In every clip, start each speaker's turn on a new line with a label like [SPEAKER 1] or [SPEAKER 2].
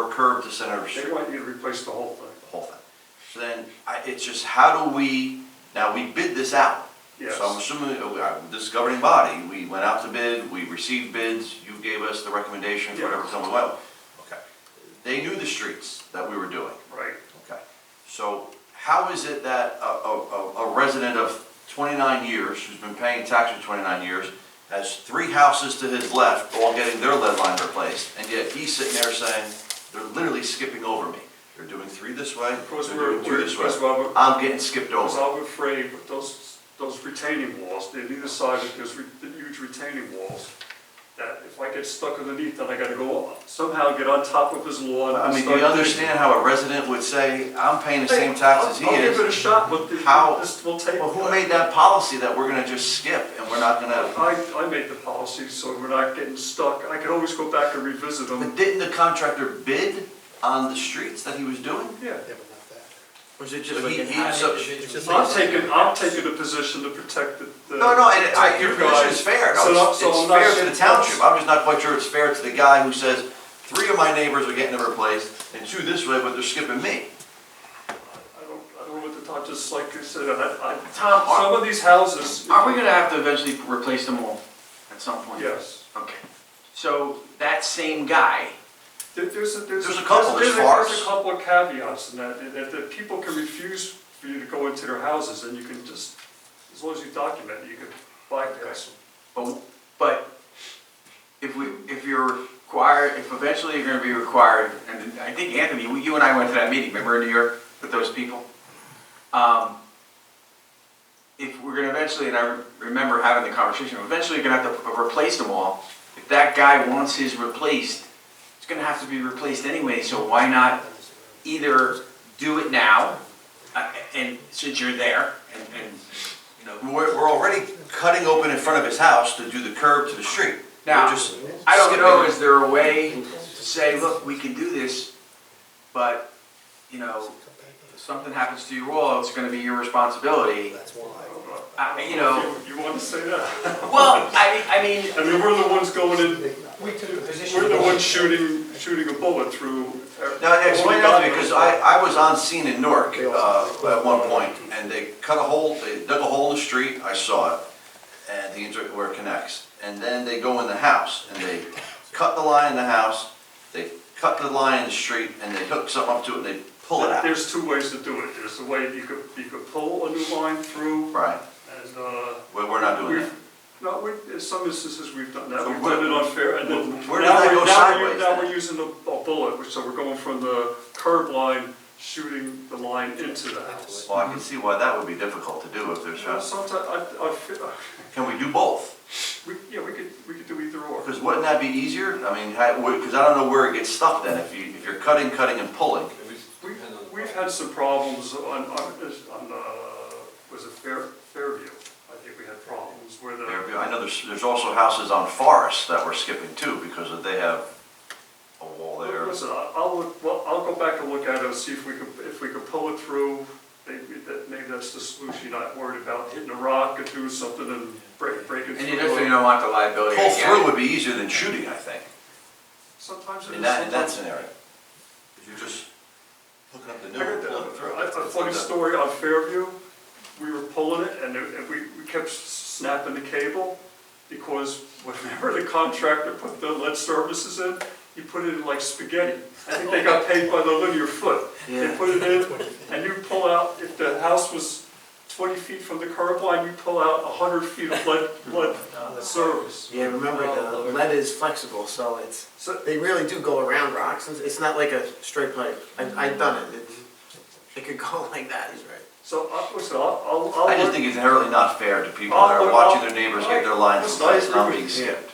[SPEAKER 1] curb to Senator Street.
[SPEAKER 2] They want you to replace the whole thing.
[SPEAKER 1] the whole thing. So then, I, it's just how do we, now we bid this out.
[SPEAKER 2] Yes.
[SPEAKER 1] So I'm assuming, uh, we- uh, this governing body, we went out to bid, we received bids, you gave us the recommendation for whatever,
[SPEAKER 2] Yeah.
[SPEAKER 1] tell me what. Okay. They knew the streets that we were doing.
[SPEAKER 2] Right.
[SPEAKER 1] Okay. So how is it that a, a, a- a resident of twenty-nine years, who's been paying taxes for twenty-nine years, has three houses to his left, all getting their lead line replaced, and yet he's sitting there saying, they're literally skipping over me. They're doing three this way,
[SPEAKER 2] Because
[SPEAKER 1] they're
[SPEAKER 2] we're,
[SPEAKER 1] doing two
[SPEAKER 2] we're,
[SPEAKER 1] this way.
[SPEAKER 2] because well, we're-
[SPEAKER 1] I'm getting skipped
[SPEAKER 2] because
[SPEAKER 1] over.
[SPEAKER 2] I'm afraid with those, those retaining walls, they either side, there's re- the huge retaining walls, that if I get stuck underneath, then I gotta go up, somehow get on top of his lawn.
[SPEAKER 1] I
[SPEAKER 2] and
[SPEAKER 1] mean, do
[SPEAKER 2] start-
[SPEAKER 1] you understand how a resident would say, I'm paying the
[SPEAKER 2] Hey,
[SPEAKER 1] same tax as he
[SPEAKER 2] I'll- I'll give
[SPEAKER 1] is?
[SPEAKER 2] it a shot, but this,
[SPEAKER 1] How-
[SPEAKER 2] this will take.
[SPEAKER 1] Well, who made that policy that we're gonna just skip and we're not gonna?
[SPEAKER 2] I, I made the policy, so we're not getting stuck. I can always go back and revisit them.
[SPEAKER 1] But didn't the contractor bid on the streets that he was doing?
[SPEAKER 2] Yeah.
[SPEAKER 3] Yeah, but not that.
[SPEAKER 4] Or is it
[SPEAKER 1] So
[SPEAKER 4] just like
[SPEAKER 1] he-
[SPEAKER 4] an
[SPEAKER 1] he-
[SPEAKER 4] odd
[SPEAKER 1] so-
[SPEAKER 3] It's just
[SPEAKER 4] individual?
[SPEAKER 2] I'm taking, I'm taking a position to protect the. the-
[SPEAKER 1] No, no, and I, your
[SPEAKER 2] you
[SPEAKER 1] position
[SPEAKER 2] guys.
[SPEAKER 1] is fair,
[SPEAKER 2] So
[SPEAKER 1] no,
[SPEAKER 2] I'm-
[SPEAKER 1] it's,
[SPEAKER 2] so
[SPEAKER 1] it's
[SPEAKER 2] I'm not
[SPEAKER 1] fair to
[SPEAKER 2] saying
[SPEAKER 1] the township,
[SPEAKER 2] that's-
[SPEAKER 1] I'm just not quite sure it's fair to the guy who says, three of my neighbors are getting it replaced, and two this way, but they're skipping me.
[SPEAKER 2] I don't, I don't know what to talk, just like you said, I, I, Tom, some of these houses.
[SPEAKER 4] Are we gonna have to eventually replace them all at some point?
[SPEAKER 2] Yes.
[SPEAKER 4] Okay. So that same guy,
[SPEAKER 2] There- There's a, there's.
[SPEAKER 1] There's a couple, there's
[SPEAKER 2] a- There's
[SPEAKER 1] farce.
[SPEAKER 2] a couple of caveats in that, that- that, that people can refuse for you to go into their houses and you can just, as long as you document, it, you can bypass them.
[SPEAKER 4] but, but if we, if you're required, if eventually you're gonna be required, and I think Anthony, you and I went to that meeting, remember in New York with those people? Um, if we're gonna eventually, and I remember having the conversation, eventually you're gonna have to replace them all. If that guy wants his replaced, it's gonna have to be replaced anyway, so why not either do it now, uh, and since you're there, and, and, you know,
[SPEAKER 1] We're, we're already cutting open in front of his house to do the curb to the street. We're
[SPEAKER 4] Now,
[SPEAKER 1] just
[SPEAKER 4] I don't know,
[SPEAKER 1] skipping.
[SPEAKER 4] is there a way to say, look, we can do this, but, you know, if something happens to you all, it's gonna be your responsibility.
[SPEAKER 3] That's why.
[SPEAKER 4] I, you know,
[SPEAKER 2] You want to say that?
[SPEAKER 4] well, I, I mean,
[SPEAKER 2] I mean, we're the ones going in,
[SPEAKER 3] We took a position.
[SPEAKER 2] We're the ones shooting, shooting a bullet through.
[SPEAKER 1] Now, explain that to me, because I, I was on scene in Newark, uh, at one point, and they cut a hole, they dug a hole in the street, I saw it, and the, inter- where it connects, and then they go in the house, and they cut the line in the house, they cut the line in the street, and they hook something up to it, and they pull it out,
[SPEAKER 2] There's two ways to do it. There's the way you could, you could pull a new line through
[SPEAKER 1] right?
[SPEAKER 2] and, uh.
[SPEAKER 1] Well, we're not doing
[SPEAKER 2] we've-
[SPEAKER 1] that.
[SPEAKER 2] No, we, in uh, some instances, we've done that.
[SPEAKER 1] So
[SPEAKER 2] We've
[SPEAKER 1] where-
[SPEAKER 2] done it unfair and then.
[SPEAKER 1] where did
[SPEAKER 2] now
[SPEAKER 1] that
[SPEAKER 2] we're-
[SPEAKER 1] go
[SPEAKER 2] now we're-
[SPEAKER 1] sideways
[SPEAKER 2] Now
[SPEAKER 1] then?
[SPEAKER 2] we're using a, a bullet, which, so we're going from the curb line, shooting the line into the house.
[SPEAKER 1] Well, I can see why that would be difficult to do if there's,
[SPEAKER 2] Now, sometimes, I, I feel,
[SPEAKER 1] can we do both?
[SPEAKER 2] we, yeah, we could, we could do either or.
[SPEAKER 1] Because wouldn't that be easier? I mean, how, because I don't know where it gets stuck then, if you, if you're cutting, cutting and pulling.
[SPEAKER 2] We've, we've had some problems on, on, this- on, uh, was it Fair, Fairview? I think we had problems where the.
[SPEAKER 1] Fairview. I know there's, there's also houses on Forest that we're skipping too, because of- they have a wall there.
[SPEAKER 2] Listen, I- uh, I'll, look- well, I'll go back and look at it and see if we could, if we could pull it through. Maybe that, maybe that's the solution, You're not worried about hitting a rock or doing something and break, breaking
[SPEAKER 4] and
[SPEAKER 2] through.
[SPEAKER 4] you definitely don't want the liability
[SPEAKER 1] Pull through
[SPEAKER 4] again.
[SPEAKER 1] would be easier than shooting, I think,
[SPEAKER 2] Sometimes
[SPEAKER 1] in
[SPEAKER 2] it is.
[SPEAKER 1] that, in that
[SPEAKER 2] sometimes-
[SPEAKER 1] scenario. If you're just hooking up the
[SPEAKER 2] I heard
[SPEAKER 1] new.
[SPEAKER 2] that.
[SPEAKER 1] pulling it through.
[SPEAKER 2] A a funny story on Fairview, we were pulling it and it- and we, we kept snapping the cable because whenever the contractor put the lead services in, he put it in like spaghetti. I think they got paid by the linear foot. They put it in and you pull out, if the house was twenty feet from the curb line, you pull out hundred feet of lead, lead service.
[SPEAKER 5] Yeah, remember, the lead is flexible, so it's,
[SPEAKER 2] So
[SPEAKER 5] they really do go around rocks, It's- it's not like a straight pipe. I, I've done it, it, it could go like that, he's right.
[SPEAKER 2] So, I- listen, I'll, I'll. I'll
[SPEAKER 1] I just
[SPEAKER 2] look-
[SPEAKER 1] think it's inherently not fair to people that
[SPEAKER 2] I'll-
[SPEAKER 1] are
[SPEAKER 2] I'll-
[SPEAKER 1] watching their neighbors get their lines
[SPEAKER 2] I'll- I'll-
[SPEAKER 1] replaced, not being skipped.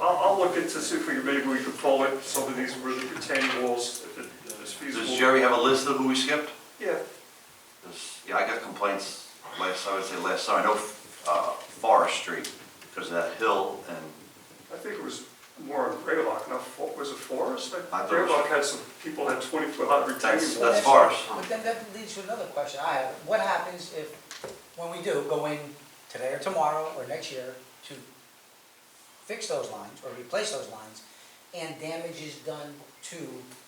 [SPEAKER 2] I'll, I'll look into, see if we, can- maybe we can pull it, some of these really retaining walls, if it- if it's
[SPEAKER 1] Does
[SPEAKER 2] feasible.
[SPEAKER 1] Jerry have a list of who we skipped?
[SPEAKER 2] Yeah,
[SPEAKER 1] There's- Yeah, I got complaints last, I would say last summer, I know, uh, Forest Street, because of that hill and
[SPEAKER 2] I think it was more on Graylock, not, Fo- was it Forest?
[SPEAKER 1] I thought it was-
[SPEAKER 2] Graylock had some, people had twenty foot high
[SPEAKER 1] that's,
[SPEAKER 2] retaining walls.
[SPEAKER 1] that's Forest.
[SPEAKER 6] But then that leads to another question I have. What happens if, when we do go in today or tomorrow or next year to fix those lines or replace those lines and damage is done to